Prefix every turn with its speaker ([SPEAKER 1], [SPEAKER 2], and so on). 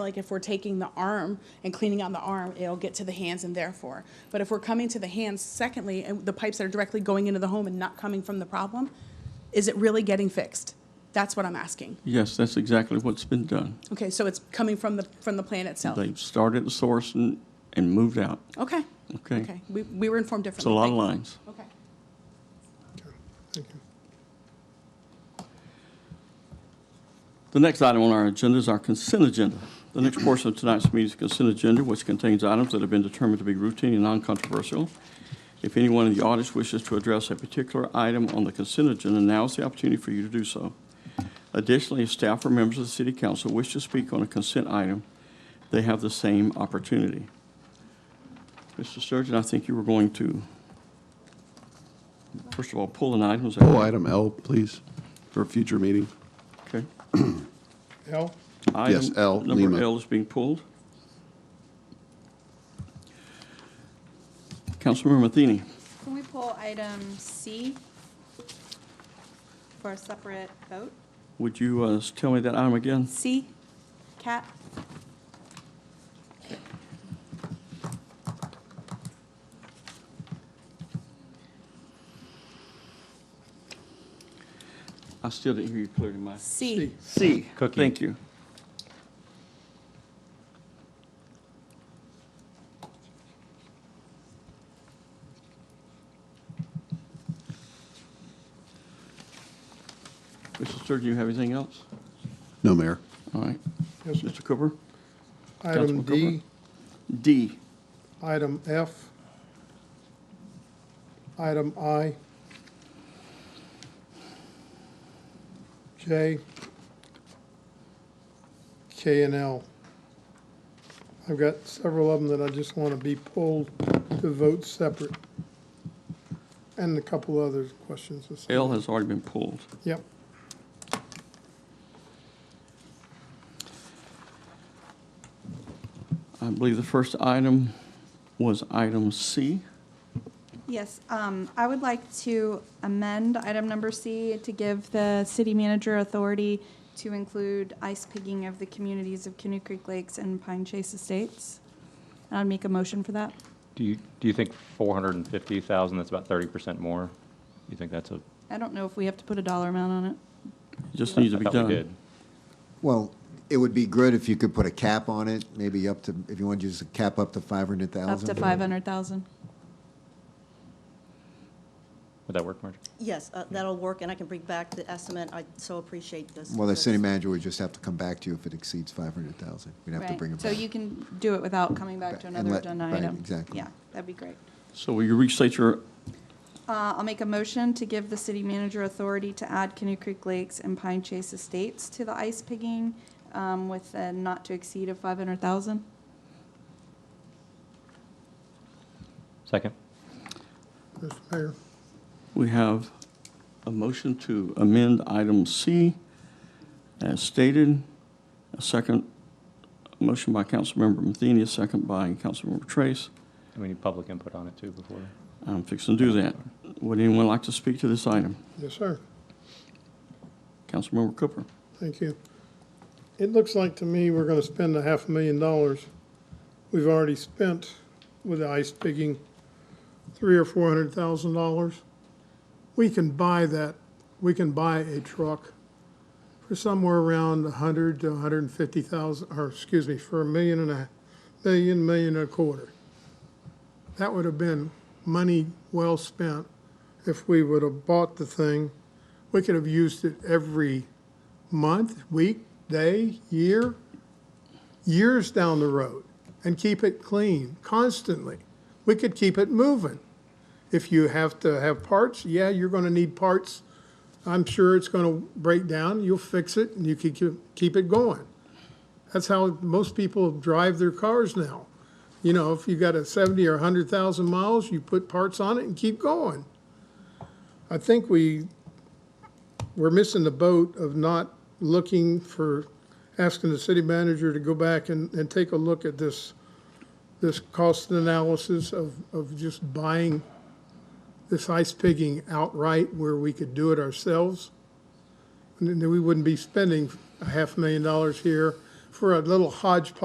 [SPEAKER 1] Like if we're taking the arm and cleaning on the arm, it'll get to the hands and therefore. But if we're coming to the hands, secondly, and the pipes that are directly going into the home and not coming from the problem, is it really getting fixed? That's what I'm asking.
[SPEAKER 2] Yes, that's exactly what's been done.
[SPEAKER 1] Okay, so it's coming from the, from the plant itself?
[SPEAKER 2] They've started at the source and, and moved out.
[SPEAKER 1] Okay.
[SPEAKER 2] Okay.
[SPEAKER 1] Okay, we, we were informed
[SPEAKER 2] It's a
[SPEAKER 1] differently.
[SPEAKER 2] lot of
[SPEAKER 1] Thank you.
[SPEAKER 2] lines.
[SPEAKER 1] Okay.
[SPEAKER 3] Thank you.
[SPEAKER 2] The next item on our agenda is our consent agenda. The next portion of tonight's meeting is consent agenda, which contains items that have been determined to be routine and non-controversial. If anyone in the audience wishes to address a particular item on the consent agenda, now is the opportunity for you to do so. Additionally, if staff or members of the city council wish to speak on a consent item, they have the same opportunity. Mr. Sturgeon, I think you were going to, first of all, pull an item. is that
[SPEAKER 4] Pull
[SPEAKER 2] right?
[SPEAKER 4] item L, please, for a future meeting.
[SPEAKER 2] Okay.
[SPEAKER 3] Al,
[SPEAKER 4] Yes,
[SPEAKER 2] Item
[SPEAKER 4] L, Lima.
[SPEAKER 2] Number L is being pulled. Councilmember Matheny,
[SPEAKER 5] Can we pull item C for a separate vote?
[SPEAKER 2] would you uh, s- tell me that item again?
[SPEAKER 5] C, cat?
[SPEAKER 2] I still didn't hear you clearly, Mike.
[SPEAKER 5] C.
[SPEAKER 2] C.
[SPEAKER 6] Cookie.
[SPEAKER 2] Thank you. Mr. Sturgeon, you have anything else?
[SPEAKER 4] No, Mayor.
[SPEAKER 2] All right.
[SPEAKER 3] yes, sir.
[SPEAKER 2] Mr. Cooper?
[SPEAKER 3] Item
[SPEAKER 2] Councilman Cooper.
[SPEAKER 3] D,
[SPEAKER 2] D.
[SPEAKER 3] item F, item I, J, K and L. I've got several of them that I just want to be pulled to vote separate. And a couple other questions. or something.
[SPEAKER 2] L has already been pulled.
[SPEAKER 3] Yep,
[SPEAKER 2] I believe the first item was item C.
[SPEAKER 5] Yes, um, I would like to amend item number C to give the city manager authority to include ice pigging of the communities of Canoe Creek Lakes and Pine Chase Estates. And I'd make a motion for that.
[SPEAKER 6] Do you, do you think 450,000, that's about 30% more? You think that's a?
[SPEAKER 5] I don't know if we have to put a dollar amount on it.
[SPEAKER 2] It just needs
[SPEAKER 6] I
[SPEAKER 2] to be
[SPEAKER 6] thought we
[SPEAKER 2] done.
[SPEAKER 6] did.
[SPEAKER 7] Well, it would be good if you could put a cap on it, maybe up to, if you want to use a cap up to five hundred
[SPEAKER 5] Up
[SPEAKER 7] thousand.
[SPEAKER 5] to five hundred thousand.
[SPEAKER 6] Would that work, Marjorie?
[SPEAKER 8] Yes, uh, that'll work, and I can bring back the estimate. I so appreciate this.
[SPEAKER 7] Well, the
[SPEAKER 8] this.
[SPEAKER 7] city manager would just have to come back to you if it exceeds five hundred thousand. We'd have to bring it
[SPEAKER 5] So
[SPEAKER 7] back.
[SPEAKER 5] you can do it without coming back to
[SPEAKER 7] And
[SPEAKER 5] another
[SPEAKER 7] let-
[SPEAKER 5] agenda
[SPEAKER 7] right,
[SPEAKER 5] item.
[SPEAKER 7] exactly.
[SPEAKER 5] Yeah, that'd be great.
[SPEAKER 2] So will you restate your,
[SPEAKER 5] Uh, I'll make a motion to give the city manager authority to add Canoe Creek Lakes and Pine Chase Estates to the ice pigging um, with a not to exceed of 500,000.
[SPEAKER 6] Second?
[SPEAKER 3] Mr. Mayor.
[SPEAKER 2] we have a motion to amend item C as stated. A second, a motion by Councilmember Matheny, a second by Councilmember Trace.
[SPEAKER 6] And we need public input on it too before.
[SPEAKER 2] I'm fixing to do that. Would anyone like to speak to this item?
[SPEAKER 3] Yes, sir.
[SPEAKER 2] Councilmember Cooper?
[SPEAKER 3] Thank you. It looks like to me we're gonna spend a half a million dollars. We've already spent with the ice pigging three or four hundred thousand dollars. We can buy that, we can buy a truck for somewhere around a hundred to a hundred and fifty thousand, or excuse me, for a million and a, million, million and a quarter. That would have been money well spent if we would have bought the thing. We could have used it every month, week, day, year, years down the road, and keep it clean constantly. We could keep it moving. If you have to have parts, yeah, you're going to need parts. I'm sure it's going to break down. You'll fix it, and you can keep- keep it going. That's how most people drive their cars now. You know, if you got a 70 or 100,000 miles, you put parts on it and keep going. I think we we're missing the boat of not looking for, asking the city manager to go back and, and take a look at this, this cost analysis of, of just buying this ice pigging outright where we could do it ourselves. And then we wouldn't be spending a half million dollars here for a little hodgepodge